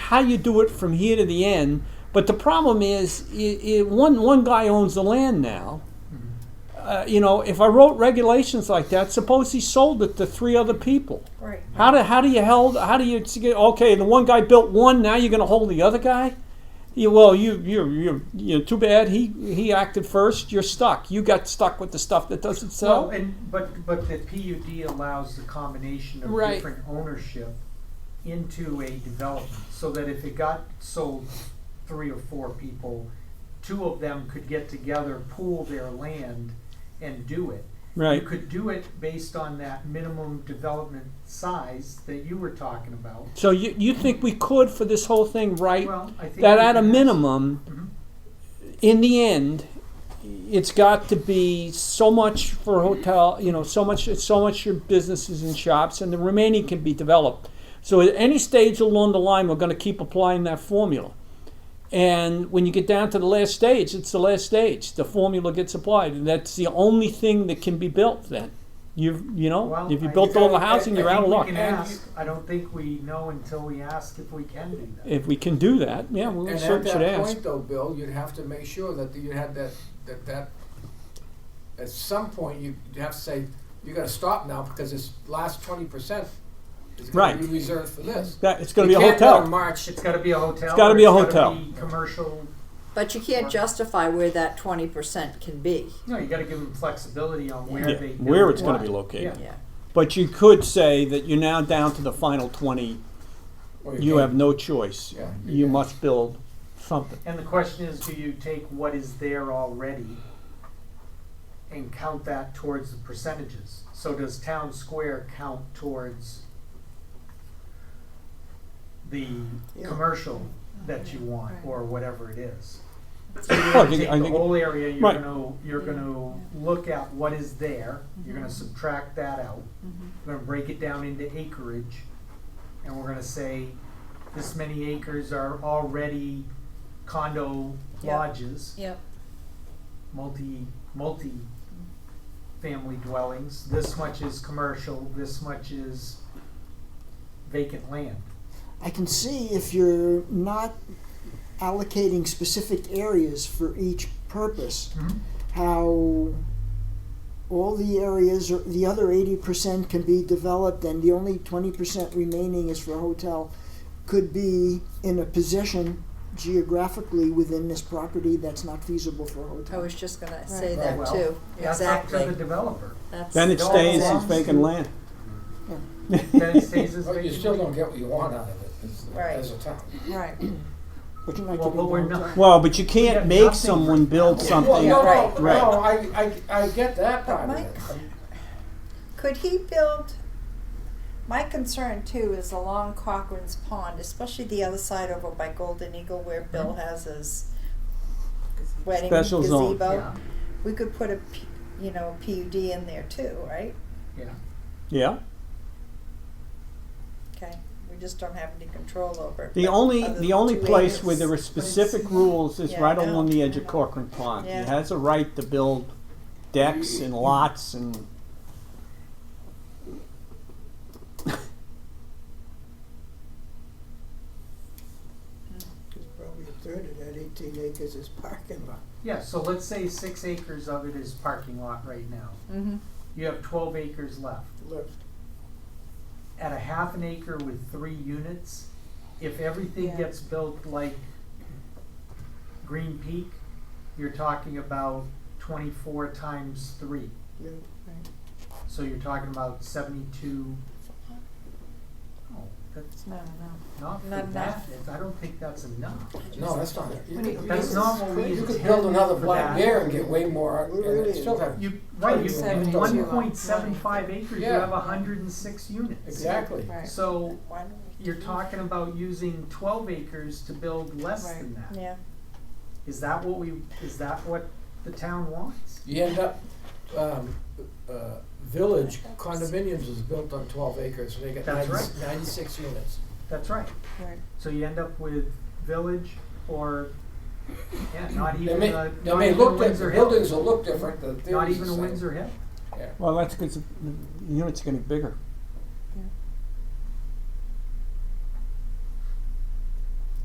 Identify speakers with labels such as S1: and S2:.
S1: how you do it from here to the end. But the problem is, i i one one guy owns the land now.
S2: Mm-hmm.
S1: Uh, you know, if I wrote regulations like that, suppose he sold it to three other people.
S3: Right.
S1: How do how do you held how do you get okay? The one guy built one. Now you're going to hold the other guy. You, well, you you you you too bad. He he acted first. You're stuck. You got stuck with the stuff that doesn't sell.
S2: Well, and, but, but the PUD allows the combination of
S1: Right.
S2: different ownership into a development, so that if it got sold three or four people, two of them could get together, pool their land, and do it.
S1: right.
S2: You could do it based on that minimum development size that you were talking about.
S1: So you you think we could for this whole thing right?
S2: Well, I think.
S1: that
S2: we
S1: at a
S2: can- Mm-hmm.
S1: minimum, in the end, it's got to be so much for hotel, you know, so much, so much your businesses and shops, and the remaining can be developed. So at any stage along the line, we're going to keep applying that formula. And when you get down to the last stage, it's the last stage. The formula gets applied, and that's the only thing that can be built. Then, you've you know,
S2: Well,
S1: if you
S2: I-
S1: built all the
S2: I-
S1: housing,
S2: I
S1: you're
S2: think
S1: out of
S2: we
S1: luck.
S2: can
S4: And
S2: ask. I don't think we know until we ask if we can do that.
S1: If we can do that, yeah, we
S4: And
S1: should,
S4: at
S1: should
S4: that
S1: ask.
S4: point, though, Bill, you'd have to make sure that you had that that that. At some point, you you have to say you got to stop now because this last twenty percent is going
S1: Right.
S4: to be reserved for this.
S1: That it's going
S4: You
S1: to be a
S4: can't
S1: hotel.
S4: go to March.
S2: It's gotta be a hotel.
S1: It's gotta
S2: or
S1: be a
S2: gotta
S1: hotel.
S2: be Commercial,
S3: But you can't justify where that twenty percent can be.
S2: no, you gotta give them flexibility on where
S1: Yeah,
S2: they.
S1: where
S2: build
S1: it's gonna
S2: what.
S1: be located.
S2: Yeah.
S3: Yeah.
S1: But you could say that you're now down to the final twenty.
S4: Well,
S1: You
S4: can't-
S1: have no choice.
S4: Yeah.
S1: You must build something.
S2: And the question is, do you take what is there already and count that towards the percentages? So does town square count towards the
S3: Yeah.
S2: commercial that you want, or whatever it is?
S1: Well, I think-
S2: take
S1: I
S2: the
S1: think-
S2: whole area, you're
S1: Right.
S2: gonna, you're gonna look at what is there, you're gonna subtract that out.
S3: Mm-hmm.
S2: We're gonna break it down into acreage, and we're gonna say, this many acres are already condo
S3: Yeah.
S2: lodges,
S3: Yep.
S2: multi, multi family dwellings, this much is commercial, this much is vacant land.
S5: I can see if you're not allocating specific areas for each purpose,
S4: Mm-hmm.
S5: how all the areas or the other 80% can be developed and the only 20% remaining is for hotel could be in a position geographically within this property that's not feasible for
S3: I
S5: hotel.
S3: was just gonna say
S2: Right.
S3: that
S2: Well,
S3: too.
S2: That's up to the
S3: Exactly.
S2: developer,
S3: That's
S1: Then it
S2: It all
S1: stays as
S2: belongs
S1: vacant
S2: to-
S1: land.
S2: then it stays as vacant.
S4: But Oh, you still don't get what you want out of it as,
S3: Right.
S4: as a town.
S3: right.
S5: But you're
S2: Well,
S5: not giving
S2: but
S5: the
S2: we're
S5: hotel.
S2: not-
S1: Well, but you
S2: got
S1: can't make
S2: nothing
S1: someone build
S4: Well,
S1: something.
S4: no,
S3: Right.
S4: no,
S1: Right.
S4: no, I, I, I get that part of
S6: Mike-
S4: it.
S6: Could he build? My concern too is along Cochrane's Pond, especially the other side over by Golden Eagle where Bill has his wedding
S1: Special zone.
S6: gazebo.
S2: Yeah,
S6: We could put a, P- you know, PUD in there too, right?
S2: yeah.
S1: Yeah.
S6: Okay, we just don't have any control over. it,
S1: The
S6: but
S1: only
S6: other
S1: the
S6: than
S1: only
S6: two
S1: place
S6: acres.
S1: where there are specific rules is
S6: Yeah,
S1: right
S6: I know.
S1: along the edge of Corcoran Pond. He
S6: Yeah.
S1: has a right to build decks and lots and.
S7: Because probably a third of that eighteen acres is parking lot.
S2: Yeah, so let's say six acres of it is parking lot right now.
S6: Mhm.
S2: You have twelve acres left.
S7: Look,
S2: At a half an acre with three units, if everything
S6: Yeah.
S2: gets built like Green Peak, you're talking about twenty-four times three.
S7: yeah,
S2: So you're talking about seventy-two. Oh, that's
S6: No, no.
S2: not for
S6: Not
S2: that.
S6: enough.
S2: It's- I don't think that's enough.
S4: No, that's not it. You
S2: But
S4: could-
S2: that's not what we
S4: You could
S2: intend
S4: build another
S2: for
S4: Black
S2: that.
S4: Bear and get way more, and it still have
S2: You, right, you,
S4: Seventy-two.
S2: one point seven five acres, you
S4: Yeah.
S2: have hundred and six units.
S4: Exactly.
S6: Right.
S2: So
S6: Why don't we
S2: you're
S6: do-
S2: talking about using twelve acres to build less than that. Is
S6: Yeah.
S2: that what we, is that what the town wants?
S4: You end up, um, uh, village condominiums is built on twelve acres, and they got
S2: That's
S4: 90 ninety-six units.
S2: That's right.
S6: Right.
S2: So you end up with village or, yeah, not
S4: They
S2: even
S4: may,
S2: a,
S4: they
S2: not
S4: may
S2: even a
S4: look, di-
S2: Windsor
S4: the
S2: Hill.
S4: buildings will look different, the
S2: Not
S4: theory's the
S2: even a
S4: same.
S2: Windsor Hill.
S1: Well, that's because the unit's getting bigger.